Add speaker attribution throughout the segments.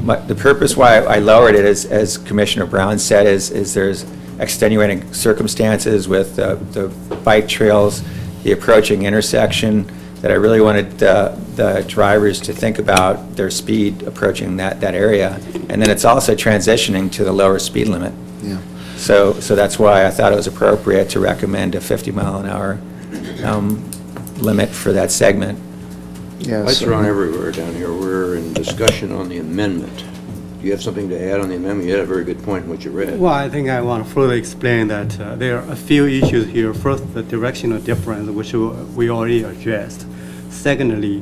Speaker 1: my- the purpose why I lowered it, is, as Commissioner Brown said, is, is there's extenuating circumstances with uh, the bike trails, the approaching intersection, that I really wanted uh, the drivers to think about their speed approaching that, that area. And then it's also transitioning to the lower speed limit.
Speaker 2: Yeah.
Speaker 1: So, so that's why I thought it was appropriate to recommend a 50 mile an hour um, limit for that segment.
Speaker 2: Yeah,
Speaker 3: Lights
Speaker 2: so-
Speaker 3: are on everywhere down here. We're in discussion on the amendment. Do you have something to add on the amendment? You had a very good point in what you read.
Speaker 4: Well, I think I want to further explain that uh, there are a few issues here. First, the directional difference, which we- we already addressed. Secondly,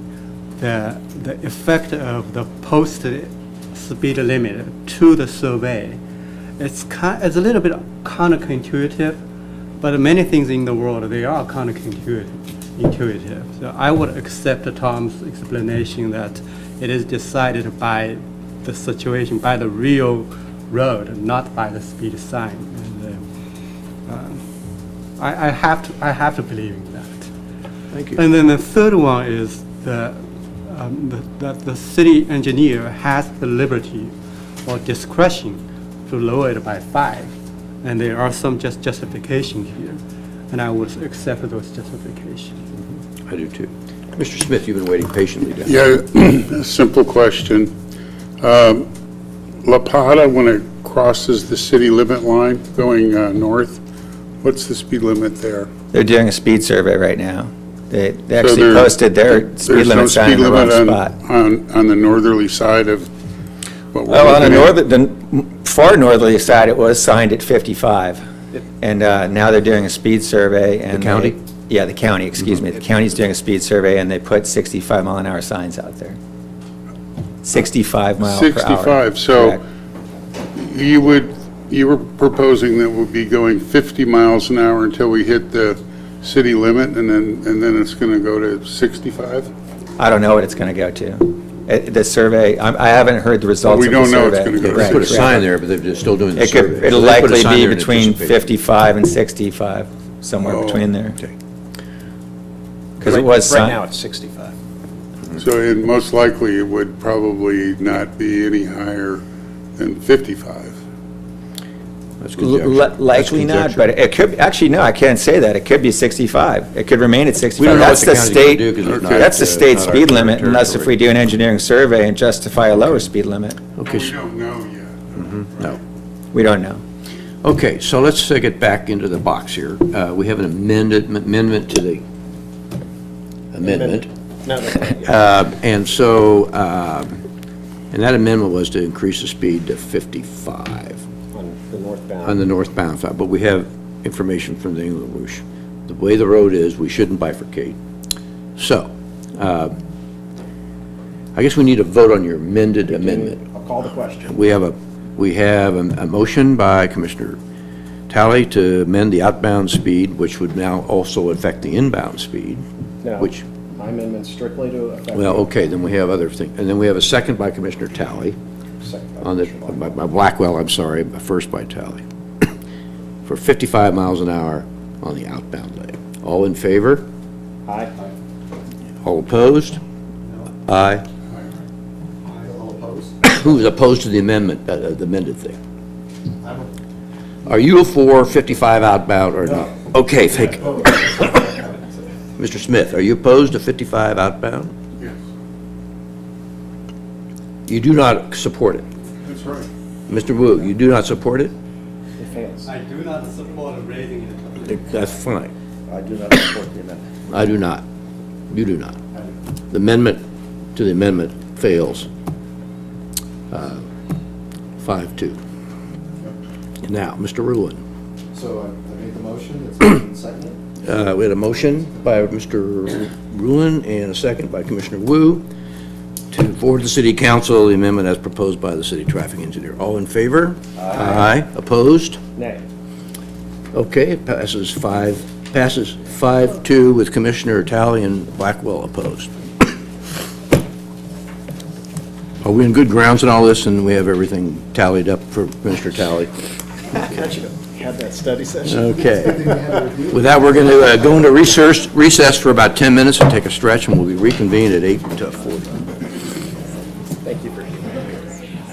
Speaker 4: the, the effect of the posted speed limit to the survey. It's kind, it's a little bit counterintuitive, but many things in the world, they are counterintuitive. Intuitive. So I would accept Tom's explanation that it is decided by the situation, by the real road, not by the speed sign. And, uh, um, I, I have to, I have to believe in that.
Speaker 3: Thank you.
Speaker 4: And then the third one is the, um, the- that the city engineer has the liberty or discretion to lower it by five. And there are some just justification here, and I would accept those justifications.
Speaker 3: I do too. Mr. Smith, you've been waiting patiently down.
Speaker 5: Yeah, a simple question. Um, La Pata, when it crosses the city limit line going uh, north, what's the speed limit there?
Speaker 1: They're doing a speed survey right now. They they
Speaker 5: So
Speaker 1: actually
Speaker 5: there-
Speaker 1: posted their speed
Speaker 5: there's no
Speaker 1: limit sign
Speaker 5: speed
Speaker 1: in the wrong
Speaker 5: limit on-
Speaker 1: spot.
Speaker 5: On, on the northerly side of what we're
Speaker 1: Well, on the
Speaker 5: looking at?
Speaker 1: northern, the far northerly side, it was signed at 55. And uh, now they're doing a speed survey and.
Speaker 3: The county? Mm-hmm.
Speaker 1: they- Yeah, the county, excuse me. The county's doing a speed survey and they put 65 mile an hour signs out there. 65 mile per hour.
Speaker 5: 65, so
Speaker 1: Correct.
Speaker 5: you would, you were proposing that we'll be going 50 miles an hour until we hit the city limit, and then, and then it's going to go to 65?
Speaker 1: I don't know what it's going to go to. It- The survey, I I haven't heard the results
Speaker 5: we
Speaker 1: of the
Speaker 5: don't know it's
Speaker 1: survey.
Speaker 5: gonna go to.
Speaker 3: They
Speaker 1: Right,
Speaker 3: put a
Speaker 1: correct.
Speaker 3: sign there, but they're still doing the
Speaker 1: It
Speaker 3: survey.
Speaker 1: could, it'll
Speaker 3: So they put a
Speaker 1: likely
Speaker 3: sign
Speaker 1: be
Speaker 3: there in
Speaker 1: between
Speaker 3: anticipation.
Speaker 1: 55 and 65, somewhere
Speaker 5: Oh.
Speaker 1: between there.
Speaker 3: Okay.
Speaker 1: Because it was
Speaker 6: Right now,
Speaker 1: signed.
Speaker 6: it's 65.
Speaker 5: So, and most likely, it would probably not be any higher than 55.
Speaker 3: That's conjecture.
Speaker 1: L-
Speaker 3: That's
Speaker 1: Likely not,
Speaker 3: conjecture.
Speaker 1: but it could, actually, no, I can't say that. It could be 65. It could remain at 65.
Speaker 3: We don't know
Speaker 1: That's
Speaker 3: what the county's gonna
Speaker 1: state-
Speaker 3: do 'cause it's not,
Speaker 1: That's the
Speaker 3: uh,
Speaker 1: state
Speaker 3: not our
Speaker 1: speed limit unless if we
Speaker 3: territory.
Speaker 1: do an engineering survey and justify a lower speed limit.
Speaker 3: Okay,
Speaker 5: We
Speaker 3: so-
Speaker 5: don't know yet.
Speaker 3: no.
Speaker 1: We don't know.
Speaker 3: Okay, so let's uh, get back into the box here. Uh, We have an amended, amendment to the amendment.
Speaker 6: No, no, no.
Speaker 3: Uh, And so, um, and that amendment was to increase the speed to 55
Speaker 6: on the northbound.
Speaker 3: on the northbound side, but we have information from the England Bush. The way the road is, we shouldn't bifurcate. So, uh, I guess we need a vote on your amended amendment.
Speaker 6: I'll call the question.
Speaker 3: We have a, we have a a motion by Commissioner Talley to amend the outbound speed, which would now also affect the inbound speed,
Speaker 6: No.
Speaker 3: which,
Speaker 6: My amendment strictly to affect.
Speaker 3: well, okay, then we have other things. And then we have a second by Commissioner Talley
Speaker 6: Second by
Speaker 3: on the,
Speaker 6: Commissioner Locke.
Speaker 3: by by Blackwell, I'm sorry, but first by Talley, for 55 miles an hour on the outbound leg. All in favor?
Speaker 6: Aye.
Speaker 3: All opposed? Aye.
Speaker 6: All opposed?
Speaker 3: Who's opposed to the amendment, uh, uh, the amended thing? Are you for 55 outbound or not? Okay, thank, Mr. Smith, are you opposed to 55 outbound?
Speaker 5: Yes,
Speaker 3: You do not support it.
Speaker 5: that's right.
Speaker 3: Mr. Wu, you do not support it?
Speaker 6: It fails.
Speaker 4: I do not support raising it.
Speaker 3: That's fine.
Speaker 6: I do not support the amendment.
Speaker 3: I do not. You do not. The amendment to the amendment fails. uh, Five-two. Now, Mr. Ruin,
Speaker 7: So I I made the motion, it's been seconded.
Speaker 3: uh, we had a motion by Mr. Ruin and a second by Commissioner Wu to forward to the city council the amendment as proposed by the city traffic engineer. All in favor? Aye. Opposed?
Speaker 6: Nay.
Speaker 3: Okay, it passes five, passes five-two with Commissioner Talley and Blackwell opposed. Are we in good grounds in all this, and we have everything tallied up for Commissioner Talley?
Speaker 6: Got you. Had that study session.
Speaker 3: Okay. With that, we're uh, going to go into recess, recess for about 10 minutes and take a stretch, and we'll be reconvened at 8 to 40.